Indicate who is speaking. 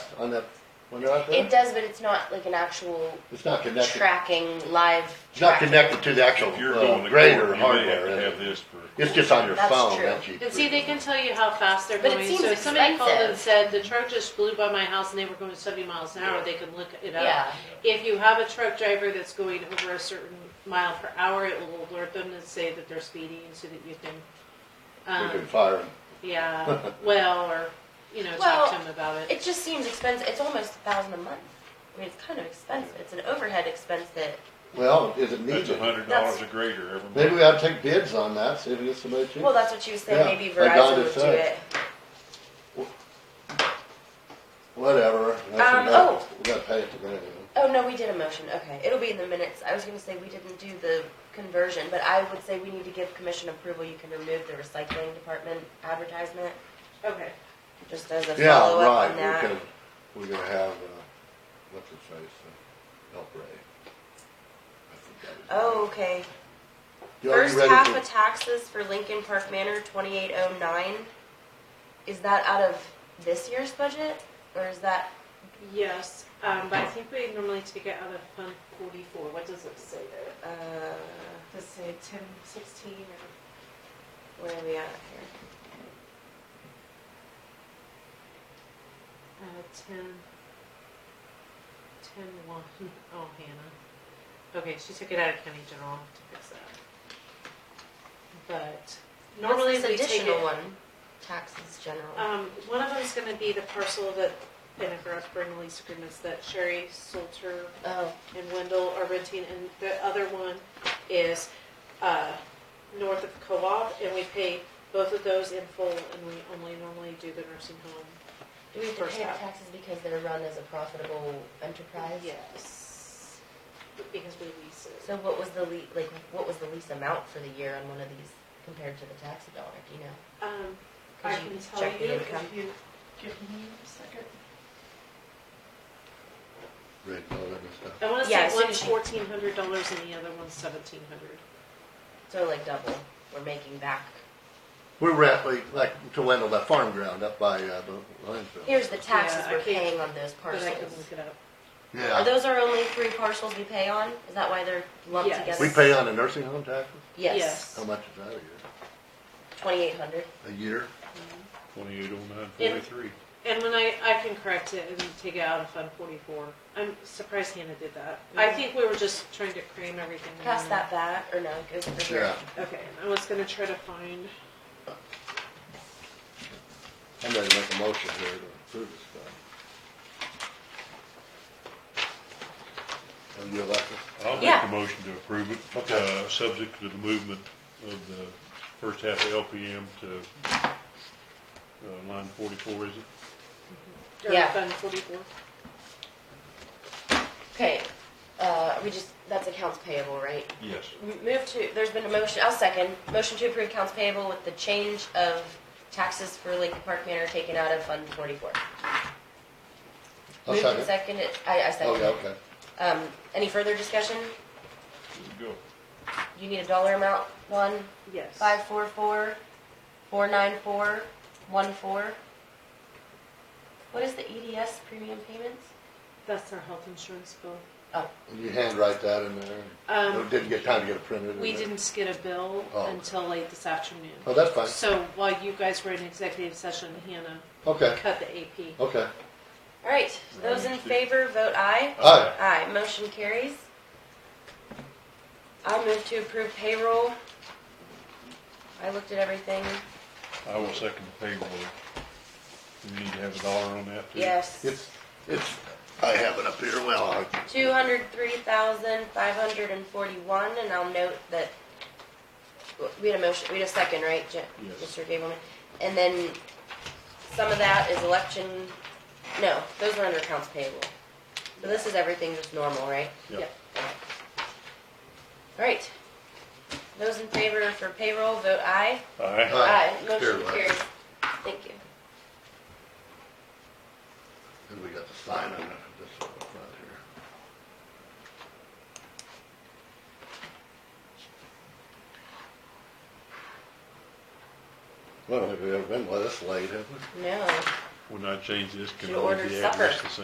Speaker 1: on that one out there?
Speaker 2: It does, but it's not like an actual
Speaker 1: It's not connected,
Speaker 2: tracking, live
Speaker 1: it's not
Speaker 2: tracking.
Speaker 1: connected to the actual
Speaker 3: If you're
Speaker 1: uh,
Speaker 3: going to
Speaker 1: grader
Speaker 3: court, you may
Speaker 1: hardware.
Speaker 3: have to
Speaker 1: is
Speaker 3: have
Speaker 1: it?
Speaker 3: this for.
Speaker 1: It's just on your
Speaker 2: That's
Speaker 1: phone,
Speaker 2: true.
Speaker 1: that's you.
Speaker 4: And see, they can tell you how fast they're
Speaker 2: But it
Speaker 4: going.
Speaker 2: seems
Speaker 4: So if somebody called and
Speaker 2: expensive.
Speaker 4: said, the truck just blew by my house and they were going seventy miles an hour,
Speaker 3: Yeah.
Speaker 4: they can look it up.
Speaker 2: Yeah,
Speaker 4: If you have a truck driver that's going over a certain mile per hour, it will alert them and say that they're speeding so that you can,
Speaker 1: We can
Speaker 4: um,
Speaker 1: fire 'em.
Speaker 4: yeah, well, or, you know,
Speaker 2: Well,
Speaker 4: talk to them about it.
Speaker 2: it just seems expensive. It's almost a thousand a month. I mean, it's kind of expensive. It's an overhead expense that
Speaker 1: Well, is it
Speaker 3: That's
Speaker 1: needed?
Speaker 3: a hundred
Speaker 2: That's-
Speaker 3: dollars a grader every month.
Speaker 1: Maybe we ought to take bids on that, see if we get somebody cheap.
Speaker 2: Well, that's what she was saying.
Speaker 1: Yeah,
Speaker 2: Maybe
Speaker 1: I got
Speaker 2: Verizon
Speaker 1: it
Speaker 2: would do
Speaker 1: set.
Speaker 2: it.
Speaker 1: Whatever, that's
Speaker 2: Um,
Speaker 1: enough, we gotta pay it to them.
Speaker 2: Oh no, we did a motion. Okay, it'll be in the minutes. I was going to say we didn't do the conversion, but I would say we need to give commission approval. You can remove the recycling department advertisement
Speaker 4: Okay.
Speaker 2: just as a
Speaker 1: Yeah,
Speaker 2: follow up
Speaker 1: right,
Speaker 2: on
Speaker 1: we
Speaker 2: that.
Speaker 1: can, we're gonna have, uh, what's his face, uh, help Ray. I think that is-
Speaker 2: Oh, okay.
Speaker 1: Y'all, you
Speaker 2: First
Speaker 1: ready
Speaker 2: half
Speaker 1: for-
Speaker 2: of taxes for Lincoln Park Manor, twenty eight oh nine. Is that out of this year's budget, or is that?
Speaker 4: Yes, um, but I think we normally take it out of Fund forty-four. What does it say there?
Speaker 2: Uh,
Speaker 4: Does it say ten sixteen or?
Speaker 2: where are we at
Speaker 4: Uh, ten, ten one. Oh, Hannah. Okay, she took it out of county general to fix that. But
Speaker 2: here?
Speaker 4: normally
Speaker 2: What's
Speaker 4: we
Speaker 2: this
Speaker 4: take
Speaker 2: additional
Speaker 4: it.
Speaker 2: one. Taxes general.
Speaker 4: Um, one of them's gonna be the parcel that, and if we're up for lease agreements, that Sherry Salter
Speaker 2: oh,
Speaker 4: and Wendell are renting, and the other one is uh, north of Co-op, and we pay both of those in full, and we only normally do the nursing home.
Speaker 2: Do we have to
Speaker 4: First
Speaker 2: pay the
Speaker 4: half.
Speaker 2: taxes because they're run as a profitable enterprise?
Speaker 4: Yes. Because we lease it.
Speaker 2: So what was the lea- like, what was the lease amount for the year on one of these compared to the tax dollar, do you know?
Speaker 4: Um,
Speaker 2: Could
Speaker 4: I
Speaker 2: you
Speaker 4: can tell
Speaker 2: check the
Speaker 4: you
Speaker 2: income?
Speaker 4: if you, give me a second.
Speaker 1: Red Bull and stuff.
Speaker 4: I wanna
Speaker 2: Yeah, as
Speaker 4: say
Speaker 2: soon
Speaker 4: one's
Speaker 2: as you-
Speaker 4: fourteen hundred dollars and the other one's seventeen hundred.
Speaker 2: So like double, we're making back.
Speaker 1: We're at, like, like, to Wendell, that farm ground up by, uh, the landfill.
Speaker 2: Here's the taxes
Speaker 4: Yeah, I
Speaker 2: we're
Speaker 4: can't-
Speaker 2: paying on those
Speaker 4: But I can
Speaker 2: parcels.
Speaker 4: look it up.
Speaker 2: Are
Speaker 1: Yeah,
Speaker 2: those our only three parcels we pay on? Is that why they're lumped
Speaker 4: Yes.
Speaker 2: together?
Speaker 1: we pay on the nursing home taxes,
Speaker 2: Yes,
Speaker 4: Yes.
Speaker 1: how much is that a
Speaker 2: twenty-eight hundred.
Speaker 1: year? A year?
Speaker 3: Twenty-eight oh nine
Speaker 4: Yeah.
Speaker 3: forty-three.
Speaker 4: And when I, I can correct it and take it out of Fund forty-four. I'm surprised Hannah did that. I
Speaker 2: Mhm.
Speaker 4: think we were just trying to cram everything in.
Speaker 2: Pass
Speaker 4: there.
Speaker 2: that back, or no, go for here.
Speaker 1: Yeah,
Speaker 4: Okay, I was gonna try to find,
Speaker 1: I'm ready to make a motion here to approve this stuff. Are you elected?
Speaker 3: I'll make
Speaker 2: Yeah.
Speaker 3: a motion to approve it, uh, subject to the movement of the first half of LPM to, uh, line forty-four, is it?
Speaker 4: or
Speaker 2: Yeah.
Speaker 4: Fund forty-four.
Speaker 2: Okay, uh, we just, that's accounts payable, right?
Speaker 3: Yes.
Speaker 2: Move to, there's been a motion, I'll second, motion to approve accounts payable with the change of taxes for Lincoln Park Manor taken out of Fund forty-four.
Speaker 1: I'll
Speaker 2: Moved and
Speaker 1: second.
Speaker 2: seconded, I, I
Speaker 1: Okay,
Speaker 2: second.
Speaker 1: okay.
Speaker 2: Um, any further discussion?
Speaker 3: Go.
Speaker 2: You need a dollar amount, one,
Speaker 4: Yes.
Speaker 2: five, four, four, four, nine, four, one, four. What is the EDS premium payments?
Speaker 4: That's our health insurance bill.
Speaker 2: Oh,
Speaker 1: You handwrite that in there.
Speaker 4: Um,
Speaker 1: It Didn't get time to get it printed. in
Speaker 4: we
Speaker 1: there.
Speaker 4: didn't get a bill
Speaker 1: Oh, okay.
Speaker 4: until late this afternoon.
Speaker 1: Oh, that's fine.
Speaker 4: So while you guys were in executive session, Hannah
Speaker 1: Okay,
Speaker 4: cut the AP.
Speaker 1: okay.
Speaker 2: all right, those in favor, vote aye.
Speaker 1: Aye.
Speaker 2: Aye, motion carries. I'll move to approve payroll. I looked at everything,
Speaker 3: I will second the payroll. We need to have a dollar on that too.
Speaker 2: yes.
Speaker 1: It's, it's, Oh, I have it up here, well, I-
Speaker 2: Two hundred three thousand five hundred and forty-one, and I'll note that, we had a motion, we had a second, right, Je-
Speaker 3: Yes.
Speaker 2: Mr. Gableman? And then some of that is election, no, those are under accounts payable. So this is everything just normal, right?
Speaker 3: Yeah.
Speaker 2: All right. Those in favor for payroll, vote aye.
Speaker 3: Aye.
Speaker 1: Aye.
Speaker 2: Motion
Speaker 1: Carried.
Speaker 2: carries. Thank you.
Speaker 1: and we got the sign on it, this one up front here. Well, I don't think we've ever been this late, have we?
Speaker 2: No,
Speaker 3: when I change this, can
Speaker 2: Should
Speaker 3: all
Speaker 2: order
Speaker 3: the
Speaker 2: supper.
Speaker 3: address the same?